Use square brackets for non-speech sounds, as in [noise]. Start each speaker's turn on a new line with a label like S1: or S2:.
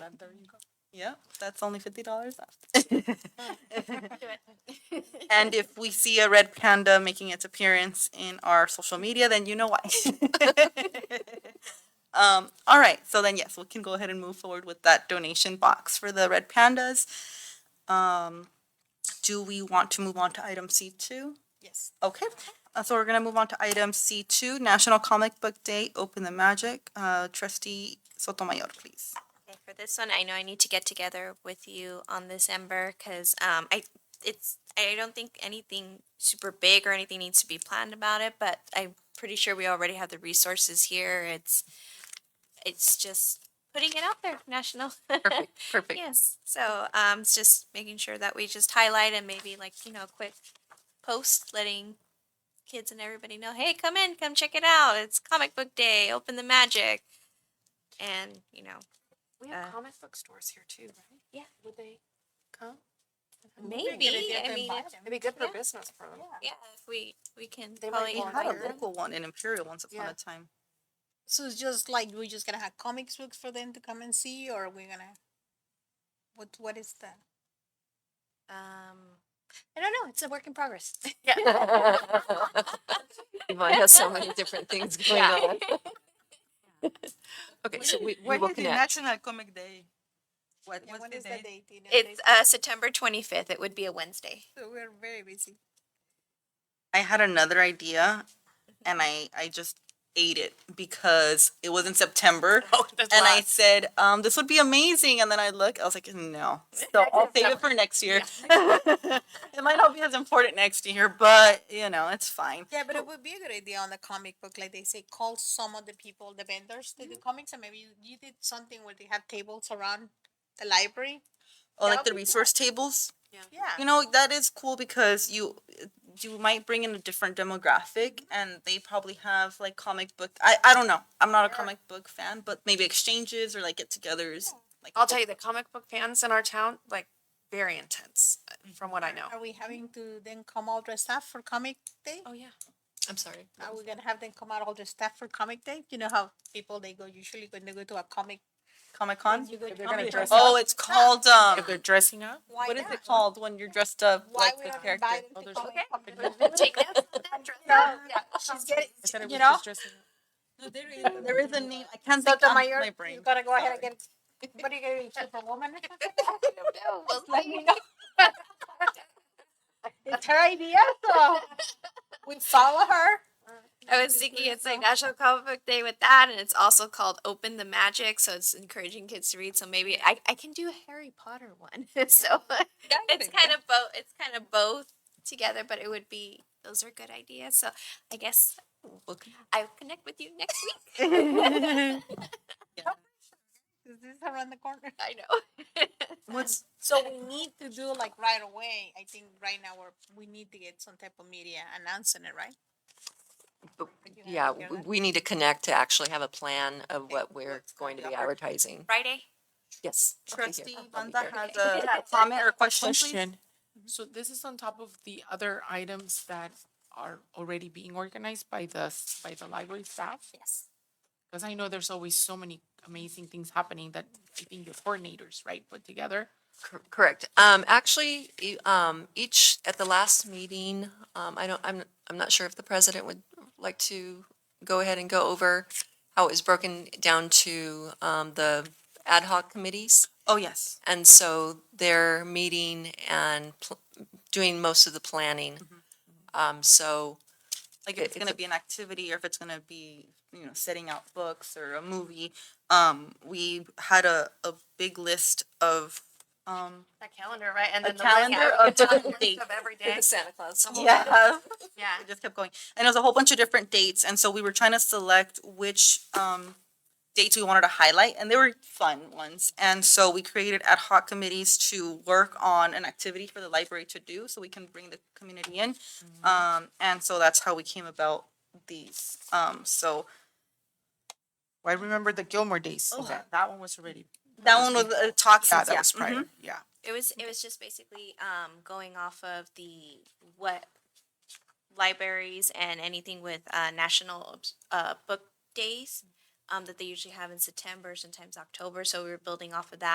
S1: And there you go.
S2: Yep, that's only fifty dollars off.
S3: Do it.
S2: And if we see a red panda making its appearance in our social media, then you know why. um, all right, so then yes, we can go ahead and move forward with that donation box for the red pandas. Um, do we want to move on to item C two?
S3: Yes.
S2: Okay, uh, so we're gonna move on to item C two, National Comic Book Day, Open the Magic. Uh, trustee Sotomayor, please.
S3: Okay, for this one, I know I need to get together with you on this, Ember, because um, I it's I don't think anything super big or anything needs to be planned about it, but I'm pretty sure we already have the resources here. It's it's just putting it out there, national.
S4: Perfect,
S3: [laughs]
S4: perfect.
S3: Yes. So um, it's just making sure that we just highlight and maybe like you know a quick post letting kids and everybody know, hey, come in, come check it out. It's comic book day. Open the magic, and you know
S4: We
S3: have Uh,
S4: comic book stores here too, right?
S3: Yeah.
S4: Would they come?
S3: maybe I mean if,
S4: It'd be good
S3: for
S4: for
S3: Yeah.
S4: business for them.
S3: yeah if we we can
S4: They might
S3: probably
S2: We
S4: want
S2: had a
S4: Imperial.
S2: local one in Imperial once upon
S4: Yeah.
S2: a time.
S1: So it's just like we're just gonna have comics books for them to come and see, or we're gonna. What What is that?
S3: um
S1: I don't know. It's a work in progress. [laughs]
S4: Yvonne has so many different things going on. Okay, so we, we will connect.
S2: National Comic Day? What,
S1: Yeah, when is the date? You know,
S3: it's
S1: they-
S3: uh September 25th. It would be a Wednesday.
S1: so we're very busy.
S2: I had another idea and I,
S1: Mm-hmm.
S2: I just ate it because it was in
S1: [laughs]
S2: September.
S1: Oh,
S2: and I said, um, this would be amazing. And then I look, I was
S1: [laughs]
S2: like, no. So I'll save it for next year. [laughs] it might not be as important next year, but you know, it's fine.
S1: Yeah, but it would be a good idea on the comic book, like they say, call some of the people, the vendors to do comics, and maybe you, you did something where they have tables around the library. That
S2: Or like
S1: would
S2: the
S1: be
S2: resource tables.
S1: Yeah.
S2: you know that is cool because you you might bring in a different demographic
S1: Mm-hmm.
S2: and they probably have like comic book i i don't know i'm not a comic book fan but maybe exchanges or like get-togethers like
S4: I'll tell you, the comic book fans in our town, like, very intense, uh, from what I
S1: [laughs]
S4: know.
S1: Are we having to then come all dressed up for comic day?
S4: Oh, yeah. I'm sorry.
S1: Are we gonna have them come out all dressed up for comic day? You know how people they go usually when they go to a comic.
S2: comic con
S1: You go
S4: If
S1: to
S4: they're
S1: comic book,
S4: gonna dress
S1: they're
S2: oh
S1: all
S2: it's
S1: dressed up.
S2: called um
S4: If they're dressing up?
S1: Why
S2: what is it
S1: not?
S2: called when you're dressed up
S1: Why
S2: like
S1: we
S2: the
S1: don't
S2: character
S1: invite
S2: [laughs]
S1: them
S4: Oh,
S1: to
S4: there's-
S1: comic book day? [laughs]
S3: Take that.
S1: Yeah,
S4: [laughs]
S1: she's getting, you know. [laughs]
S2: there is a name i can't think of
S1: Sotomayor,
S2: my brain
S1: you gotta go ahead and
S2: Sorry.
S1: get, [laughs] what are you gonna be,
S2: [laughs]
S1: Superwoman?
S3: Oh, Well,
S1: Let me know. [laughs] It's her idea, so we follow her.
S3: I was thinking it's like National Comic Book Day with that, and it's also called Open the Magic, so it's encouraging kids to read. So maybe I, I can do a Harry Potter one. [laughs] so [laughs] it's kind of both. It's kind of both together, but it would be those are good ideas. So I guess
S2: Book.
S3: I'll connect with you next week. [laughs]
S1: Is [laughs] this around the corner?
S3: I know.
S2: what's
S1: So we need to do like right away, I think right now we're, we need to get some type of media announcing it, right?
S5: But-
S1: You have
S5: Yeah,
S1: to get
S5: we-
S1: that?
S5: we need to connect to actually have a plan of what we're
S2: what's
S5: going to
S2: coming
S5: be
S2: up.
S5: advertising.
S3: Friday.
S5: Yes. I'll be here.
S2: trustee
S5: I'll be
S2: Wanda
S5: here.
S2: has
S3: Okay.
S2: a comment or question, please?
S6: Question. Mm-hmm. So this is on top of the other items that are already being organized by the, s- by the library staff?
S3: Yes.
S6: Because I know there's always so many amazing things happening that I think the coordinators, right, put together.
S5: Cor- Correct. Um, actually, e- um, each, at the last meeting, um, I don't, I'm, I'm not sure if the president would like to go ahead and go over how it was broken down to, um, the ad hoc committees.
S2: oh yes
S5: And so they're meeting and pl- doing most of the planning. Um, so
S2: like
S5: It-
S2: if it's
S5: it's
S2: gonna
S5: a-
S2: be an activity or if it's gonna be, you know, setting out books or a movie. Um, we had a, a big list of, um,
S3: That calendar, right? And
S2: a calendar of different dates.
S3: every
S5: [laughs] Santa Claus.
S2: Yeah,
S3: Yeah.
S2: it just kept going. And it was a whole bunch of different dates, and so we were trying to select which, um, dates we wanted to highlight, and they were fun ones. And so we created ad hoc committees to work on an activity for the library to do, so we can bring the community in.
S5: Mm-hmm.
S2: Um, and so that's how we came about these. Um, so
S6: Well, I remember the Gilmore Days
S2: Oh.
S6: event. That one was already,
S2: That one was uh, toxins.
S6: yeah, that was
S2: mhm.
S6: prior, yeah.
S3: It was it was just basically um going off of the what libraries and anything with uh national uh book days um that they usually have in September, sometimes October, so we were building off of that.